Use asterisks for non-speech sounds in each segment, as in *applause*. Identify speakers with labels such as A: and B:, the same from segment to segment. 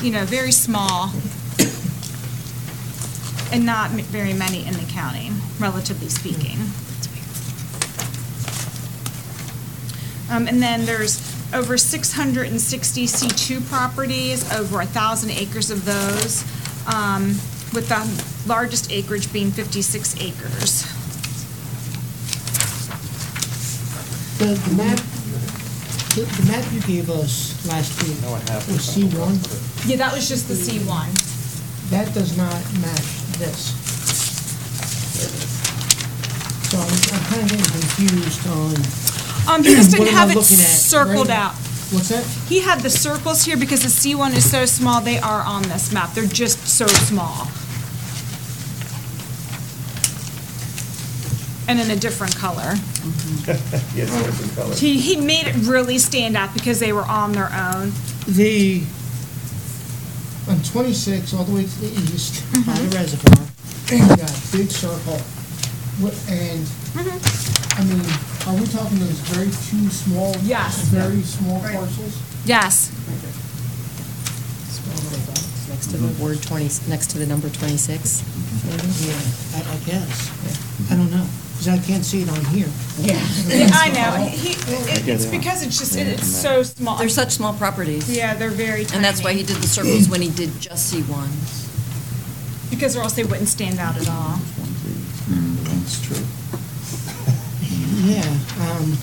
A: you know, very small and not m- very many in the county, relatively speaking. Um, And then there's over 660 C2 properties, over 1,000 acres of those, um, with the largest acreage being 56 acres.
B: The, the map, the, the map you gave us last week
C: No, I have it.
B: was C one,
A: Yeah, that was just the C1.
B: that does not match this. So I'm, I'm kind of getting confused on,
A: Um, he just
B: *clears throat* What
A: didn't
B: am I
A: have it
B: looking at?
A: circled
B: Right.
A: out.
B: what's that?
A: He had the circles here because the C1 is so small, they are on this map. They're just so small. And in a different color.
C: Yes, different color.
A: He, he made it really stand out because they were on their own.
B: The, on twenty-six, all the way to the east, by the reservoir, you got a big circle. What, and, I mean, are we talking those very two small?
A: Yes.
B: Very small
A: Right.
B: parcels?
A: Yes.
D: Next to
E: Mm-hmm.
D: the word 20, next to the number 26.
B: Yeah, I, I guess. I don't know, because I can't see it on here.
A: Yeah, I know. He, it- it's because it's just, it- it's so small.
D: They're such small properties.
A: Yeah, they're very tiny.
D: And that's why he did the circles when he did just C1.
A: Because or else they wouldn't stand out at all.
F: That's true.
B: Yeah, um,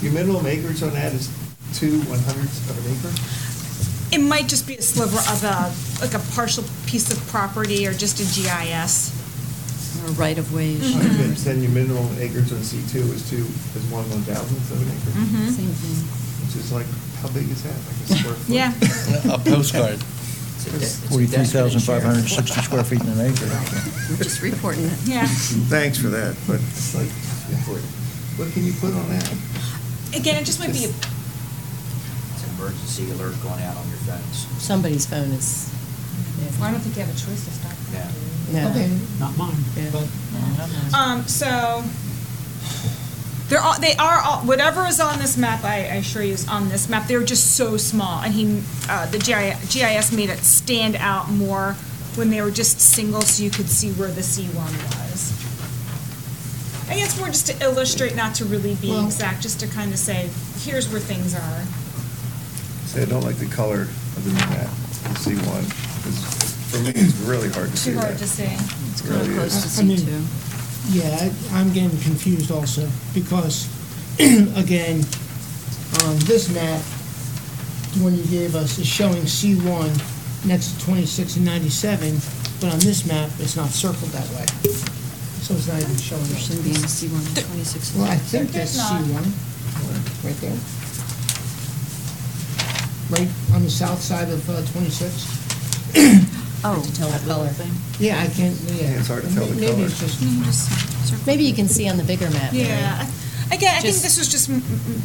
C: Your minimum acreage on that is two one hundredths of an acre?
A: It might just be a sliver of a, like a partial piece of property or just a GIS.
D: Or right of ways.
A: Mm-hmm.
C: Okay, Then your minimum acreage on C two is two, is one one thousandth of an acre,
D: Same
A: Mm-hmm.
D: thing.
C: which is like, how big is that? Like a square foot? *laughs*
A: Yeah.
E: A postcard. Forty-three thousand five hundred and sixty square feet in an acre.
D: We're just reporting it.
A: Yeah.
C: Thanks for that, but it's like, what can you put on that?
A: Again, it just might be, a-
G: It's an emergency alert going out on your phones.
D: Somebody's phone is.
H: I don't think you have a choice to stop.
G: Yeah.
D: No.
B: okay.
I: Not mine,
D: Yeah.
I: but
A: um, so, they're all, they are all, whatever is on this map, I, I assure you is on this map, they're just so small. And he, uh, the GI GIS made it stand out more when they were just single, so you could see where the C1 was. I guess more just to illustrate, not to really be
B: Well-
A: exact, just to kind of say, here's where things are.
C: Say, I don't like the color other than that, C one, for me, it's really hard to see
A: Too
C: that.
A: hard to see.
D: It's kind of
C: Really
D: close
C: is.
D: to
B: I mean-
D: C2.
B: Yeah, I- I'm getting confused also, because, *clears throat* again, on this map, the one you gave us is showing C1 next to 26 and 97, but on this map, it's not circled that way. So it's not even showing
D: There
B: us.
D: shouldn't be any C1 on 26.
B: Well, I think
A: There's
B: that's
A: not.
B: C1, right there. Right on the south side of uh, 26.
D: Oh. To tell the color.
B: Yeah, I can't, yeah.
C: Yeah, it's hard to tell the
B: Maybe
C: color.
B: it's just-
D: Maybe you can see on the bigger map. Mary.
A: Yeah. Again, I think
D: Just-
A: this was just, m- m-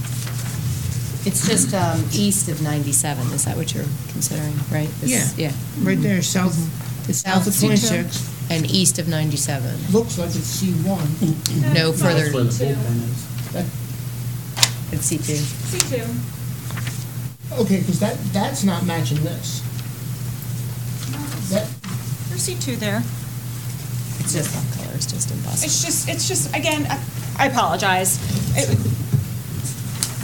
D: It's just um, east of 97. Is that what you're considering, right? It's-
B: Yeah.
D: Yeah.
B: right there, south, it's south of
D: South C2.
B: 26.
D: And east of 97.
B: Looks like it's C1.
D: No further.
I: that's where the bullpen is.
D: It's C2.
A: C2.
B: Okay, because that, that's not matching this. That,
A: There's C2 there.
D: It's just that color is just impossible.
A: It's just, it's just, again, I- I apologize. It-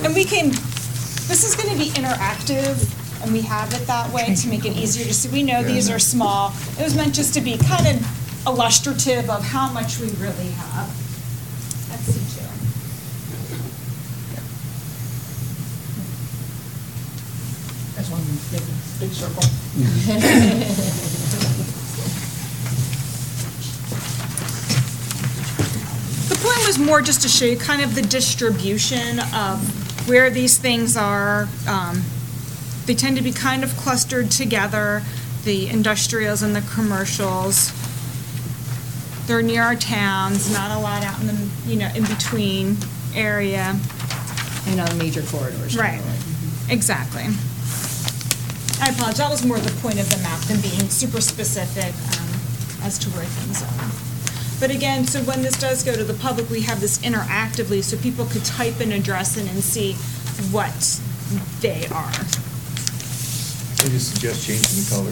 A: And we can, this is going to be interactive, and we have it that way to make it easier to see. We know these are small. It was meant just to be kind of illustrative of how much we really have. That's C2.
B: that's one big, big circle.
A: The point was more just to show you kind of the distribution of where these things are. Um, They tend to be kind of clustered together, the industrials and the commercials. They're near our towns, not a lot out in the, you know, in between area.
D: And on major corridors.
A: Right, exactly. I apologize, that was more the point of the map than being super specific um, as to where things are. But again, so when this does go to the public, we have this interactively, so people could type an address in and see what they are.
C: I just suggest changing the color